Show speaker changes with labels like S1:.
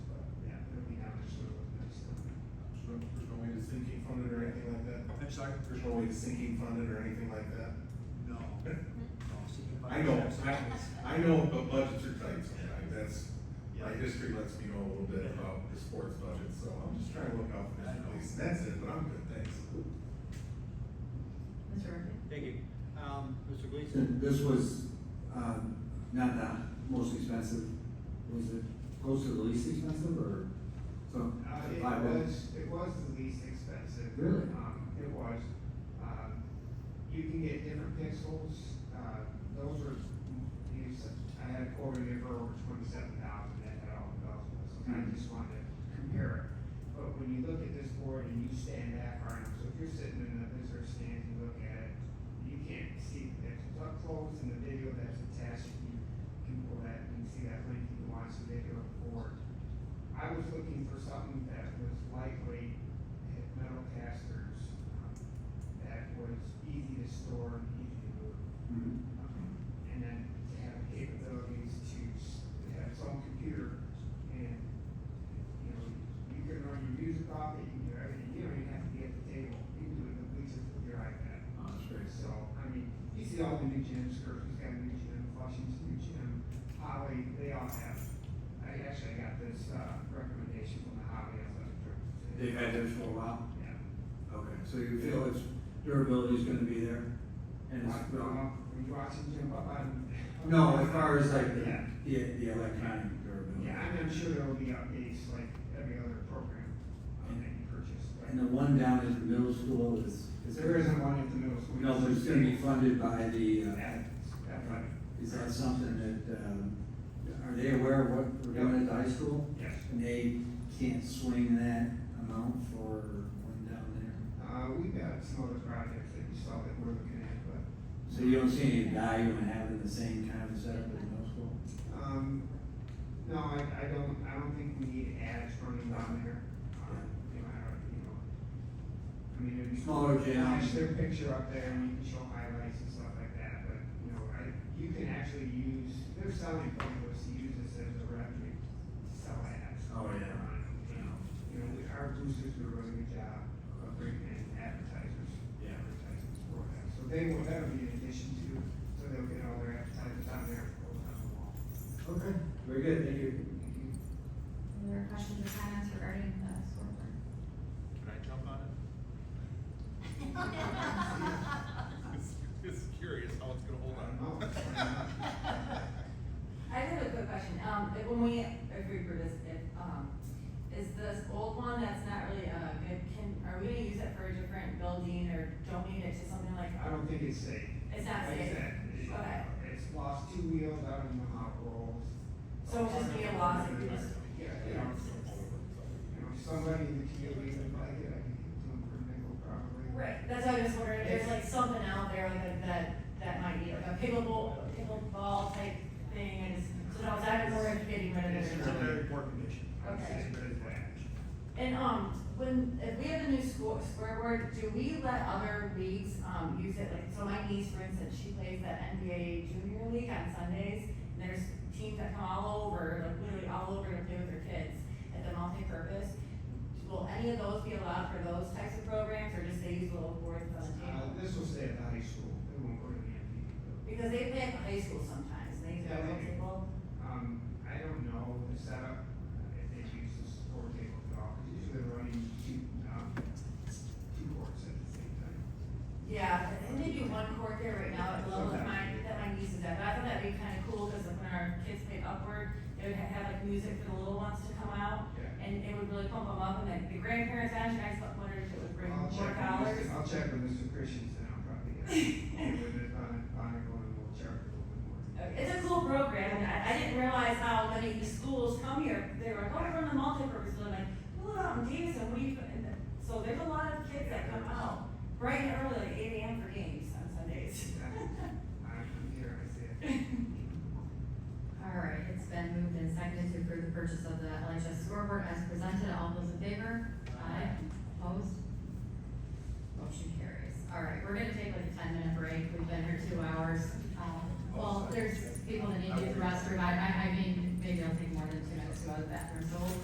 S1: I'm sorry?
S2: There's no way to sinking fund it or anything like that.
S1: No. No, see, if
S2: I know, I, I know, but budgets are tight sometimes, that's, my
S1: Yeah.
S2: history lets me know a little bit about the sports budget, so I'm just trying to look out for
S1: I know.
S2: Mr. Gleason, that's it, but I'm good, thanks.
S3: Mr. Murphy?
S1: Thank you. Um, Mr. Gleason?
S4: This was, um, not the most expensive, was it close to the least expensive or some?
S5: Uh, it
S4: five
S5: was, it was the least expensive.
S4: Really?
S5: Um, it was, um, you can get different pixels, uh, those were, you said- I had a quote in there for over twenty-seven thousand, that had all the pixels, and I just wanted to compare it. But when you look at this board and you stand back on it, so if you're sitting in the visitor stand and look at it, you can't see the pixels up close in the video that's attached, you can pull that, you can see that link, you can watch the video of the board. I was looking for something that was lightweight, had metal casters, um, that was easy to store and easy to move.
S4: Mhm.
S5: Um, And then to have capabilities to, s- to have its own computer and, you know, you can run your music off it, you can do everything, you don't even have to be at the table, you can do it in the bleachers with your iPad.
S4: Oh, that's great.
S5: So, I mean, you see all the new gyms, Kirby's got a new gym, Flushing's new gym, Holly, they all have. I actually got this, uh, recommendation from the Holly Athletic Director.
S4: They've
S5: today.
S4: had theirs for a while?
S5: Yeah.
S4: Okay, so you feel its durability is gonna be there? And
S5: Like,
S4: it's, well,
S5: uh, Were you watching Jim Bob?
S4: no, as far as like the,
S5: Yeah,
S4: the, the electronic durability.
S5: yeah, I'm, I'm sure there'll be updates like every other program um, that you purchase,
S4: And
S5: but
S4: the one down at the middle school is, is
S5: there isn't one at the middle school.
S4: No, but it's gonna be funded by the, uh,
S5: At- at Athletic,
S4: Is that something that, um, are they aware of what we're doing at the high school?
S5: yes.
S4: And they can't swing that amount for one down there?
S5: Uh, we've got some other projects that you saw that we're looking at, but
S4: So you don't see any value in having the same kind of setup at the middle school?
S5: Um, no, I, I don't, I don't think we need ads running down there. Um, You know, I don't, you know. I mean, it'd be.
S4: Smaller gym.
S5: Flash their picture up there and you can show highlights and stuff like that, but, you know, I, you can actually use, they're selling bundles, to use this as a revenue to sell ads.
S4: Oh, yeah.
S5: Um, You know, you know, we- our boosters do a really good job of bringing in advertisers.
S4: Yeah.
S5: Advertisers for that, so they will, that'll be in addition to, so they'll get all their advertisers on there, and on the wall.
S4: Okay, very good, thank you.
S3: Any other questions or comments regarding the scoreboard?
S1: Can I jump on it? It's curious how it's gonna hold
S5: I don't
S6: I just have a quick question, um, if, when we, if we approve this, if, um, is this old one that's not really, uh, good, can, are we gonna use it for a different building or donate it to something like,
S5: I don't think it's safe.
S6: it's
S5: Like
S6: not
S5: I
S6: safe?
S5: said, it-
S6: Okay.
S5: It's lost two wheels, I don't know how it rolls.
S6: So it'll just be a loss if we just-
S5: Yeah, you know, you know, somebody in the community would like it, I can give it to them for a nickel probably.
S6: Right, that's why I was wondering, if there's like something out there like that, that might be like a pickleball, pickleball type thing, and it's, so no, it's not more of getting rid of it.
S5: It's not very
S1: poor condition.
S5: I would say it's better than that.
S6: And, um, when, if we have a new school, scoreboard, do we let other leagues, um, use it, like, so my niece, for instance, she plays the NBA Junior League on Sundays, and there's teams that come all over, like, literally all over to play with their kids at the multi-purpose. Will any of those be allowed for those types of programs, or just they use little boards on the
S5: Uh,
S6: table?
S5: this will stay at the high school, it won't go to the MPD.
S6: Because they play at the high school sometimes, and they use their
S5: Yeah,
S6: little
S5: they do.
S6: table.
S5: Um, I don't know the setup, uh, if they use the support table at all, because usually they're running two, um, two courts at the same time.
S6: Yeah, and maybe one court there right now at the level that my,
S5: Okay.
S6: that my niece is at, but I thought that'd be kinda cool, cause when our kids played upward, they would have like music for the little ones to come out,
S5: Yeah.
S6: and it would really pump them up, and then the grandparents actually, I just wondered if it would bring
S5: I'll
S6: more
S5: Oh, check with
S6: dollars.
S5: Mr. I'll check with Mr. Christensen, I'll probably get get with it on, on it, and we'll check a little bit more.
S6: Okay, It's a cool program, and I, I didn't realize how many schools come here, they were like, oh, we're on the multipurpose, and I'm like, look, I'm Davidson, what do you, and then- so there's a lot of kids that come out, bright and early, like eight AM for games on Sundays.
S5: I'm here, I see it.
S3: All right, it's been moved and seconded to approve the purchase of the LHS scoreboard as presented. All those in favor? Aye. Opposed? Motion carries. All right, we're gonna take like a ten minute break. We've been here two hours. Um, Well, there's people that need to use the restroom. I, I, I mean, maybe I'll take more than two minutes to go to the bathroom, so we'll